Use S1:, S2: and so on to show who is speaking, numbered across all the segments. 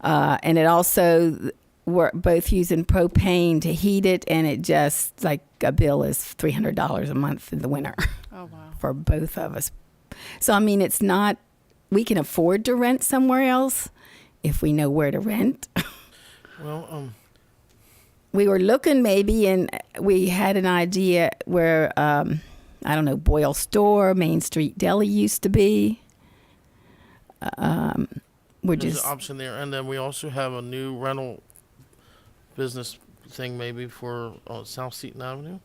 S1: uh, and it also we're both using propane to heat it, and it just like a bill is three hundred dollars a month in the winter
S2: Oh, wow.
S1: for both of us. So I mean, it's not we can afford to rent somewhere else if we know where to rent.
S3: Well, um,
S1: we were looking maybe and we had an idea where um, i don't know boyle store main street deli used to be um, which
S3: there's
S1: is
S3: an option there, and then we also have a new rental business thing maybe for uh, South Seaton Avenue,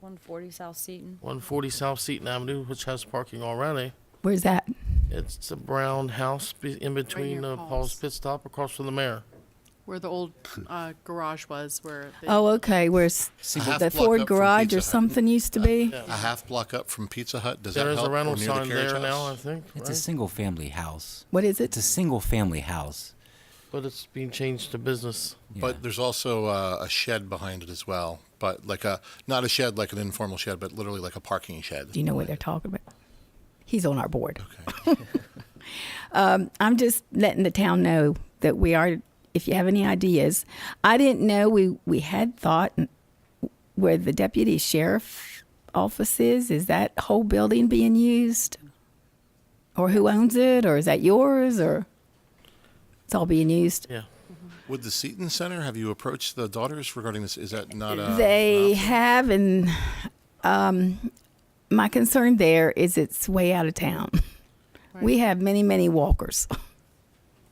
S4: 140 South Seaton.
S3: 140 South Seaton Avenue, which has parking already.
S1: where's that
S3: It's a brown house be- in between
S2: near
S3: uh, Paul's
S2: Paul's.
S3: Pit Stop, across from the mayor.
S2: Where the old uh, garage was, where they,
S1: oh okay where's
S5: See, half
S1: the
S5: block
S1: ford
S5: up from
S1: garage
S5: Pizza
S1: or
S5: Hut.
S1: something used to be
S3: Yeah.
S5: A half block up from Pizza Hut. Does
S3: There
S5: that
S3: is
S5: help?
S3: a
S5: Or
S3: rental
S5: near the
S3: sign
S5: carriage
S3: there now, I
S5: house?
S3: think.
S6: It's a
S3: right?
S6: single family house.
S1: what is it
S6: It's a single family house.
S3: But it's being changed to business.
S6: Yeah.
S5: But there's also uh, a shed behind it as well. But like a not a shed like an informal shed, but literally like a parking shed.
S1: do you know what they're talking about he's on our board
S5: Okay.
S1: I'm just letting the town know that we are. If you have any ideas, I didn't know we we had thought where the deputy sheriff office is. Is that whole building being used, or who owns it, or is that yours, or it's all being used?
S3: Yeah.
S5: Would the Seton Center have you approached the daughters regarding this? Is that not a
S1: they
S5: an option?
S1: have, and um, my concern there is it's way out of town. We have many many walkers.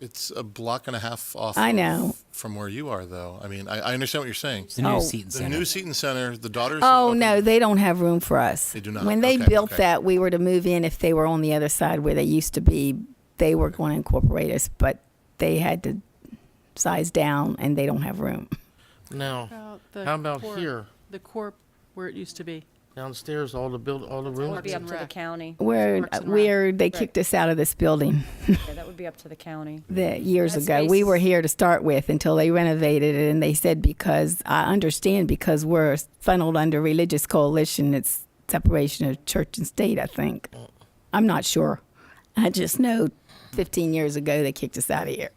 S5: It's a block and a half off.
S1: I
S5: of-
S1: know.
S5: from where you are, though. I mean, I, I understand what you're saying.
S6: The new
S1: Oh.
S6: Seton
S5: The
S6: Center.
S5: new Seton Center, the daughters. have
S1: Oh
S5: opened-
S1: no, they don't have room for us.
S5: They do not.
S1: When they
S5: Okay,
S1: built
S5: okay.
S1: that, we were to move in if they were on the other side where they used to be. They were going to incorporate us, but they had to size down, and they don't have room.
S3: Now,
S2: about the
S3: how about
S2: corp-
S3: here?
S2: The corp where it used to be.
S3: Downstairs, all the build, all the
S4: That would
S3: rooms.
S4: be up
S2: and
S4: to the
S2: Rec.
S4: county.
S1: Where
S2: Parks and Rec.
S1: where they kicked us out of this building
S4: Yeah, that would be up to the county.
S1: that years
S4: That
S1: ago. We
S4: space-
S1: were here to start with until they renovated it, and they said because I understand because we're funneled under religious coalition, it's separation of church and state. I think I'm not sure. I just know 15 years ago they kicked us out of here.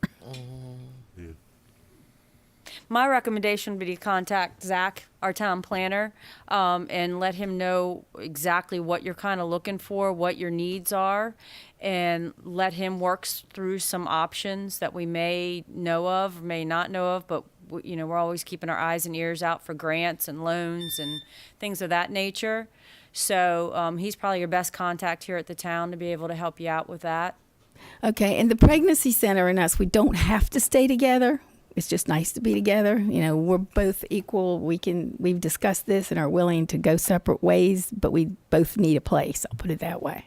S4: My recommendation would be to contact Zach, our town planner, um, and let him know exactly what you're kind of looking for, what your needs are, and let him work s- through some options that we may know of, may not know of, but w- you know we're always keeping our eyes and ears out for grants and loans and things of that nature. So um, he's probably your best contact here at the town to be able to help you out with that.
S1: Okay, and the pregnancy center and us, we don't have to stay together. It's just nice to be together. You know, we're both equal. We can we've discussed this and are willing to go separate ways, but we both need a place. I'll put it that way.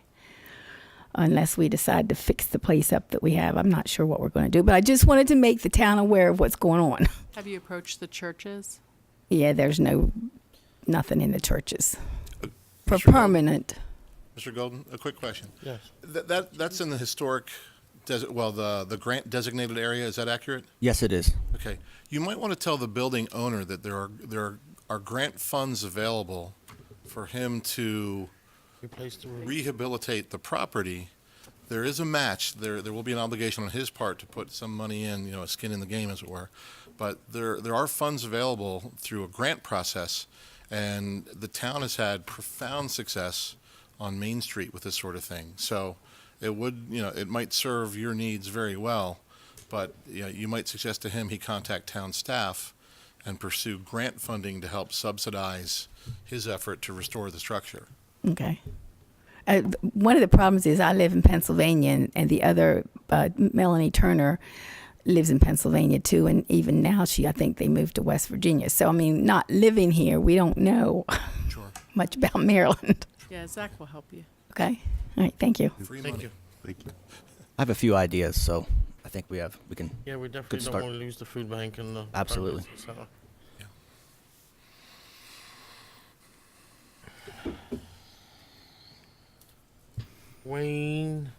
S1: Unless we decide to fix the place up that we have, I'm not sure what we're going to do. But I just wanted to make the town aware of what's going on.
S2: Have you approached the churches?
S1: yeah, there's no nothing in the churches for
S5: Mr. Gold-
S1: permanent.
S5: Mr. Golden, a quick question.
S3: Yes.
S5: That, that that's in the historic, desert, well, the the grant designated area. Is that accurate?
S7: Yes, it is.
S5: Okay. You might want to tell the building owner that there are there are, are grant funds available for him to
S3: Replace the roof.
S5: rehabilitate the property. There is a match. There there will be an obligation on his part to put some money in, you know, a skin in the game, as it were. But there there are funds available through a grant process, and the town has had profound success on Main Street with this sort of thing. So it would you know it might serve your needs very well, but you know, you might suggest to him he contact town staff and pursue grant funding to help subsidize his effort to restore the structure.
S1: Okay. Uh, th- one of the problems is I live in Pennsylvania, and, and the other uh, Melanie Turner lives in Pennsylvania too. And even now, she I think they moved to West Virginia. So I mean, not living here, we don't know
S5: Sure.
S1: much about Maryland.
S2: Yeah, Zach will help you.
S1: Okay. All right. Thank you.
S5: Free
S3: Thank
S5: money.
S3: you.
S7: I have a few ideas, so I think we have we can.
S3: Yeah, we definitely don't
S7: start.
S3: want to lose the food bank and the.
S7: Absolutely.
S3: pregnancy center. Wayne.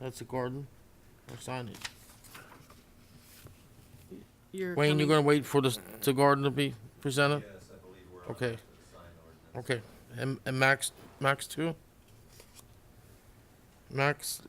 S3: That's the garden. Or signage.
S2: You're
S3: Wayne, you're
S2: coming-
S3: gonna wait for this, the garden to be presented? Yes, I believe we're. Okay. Okay, and, and Max, Max too? Max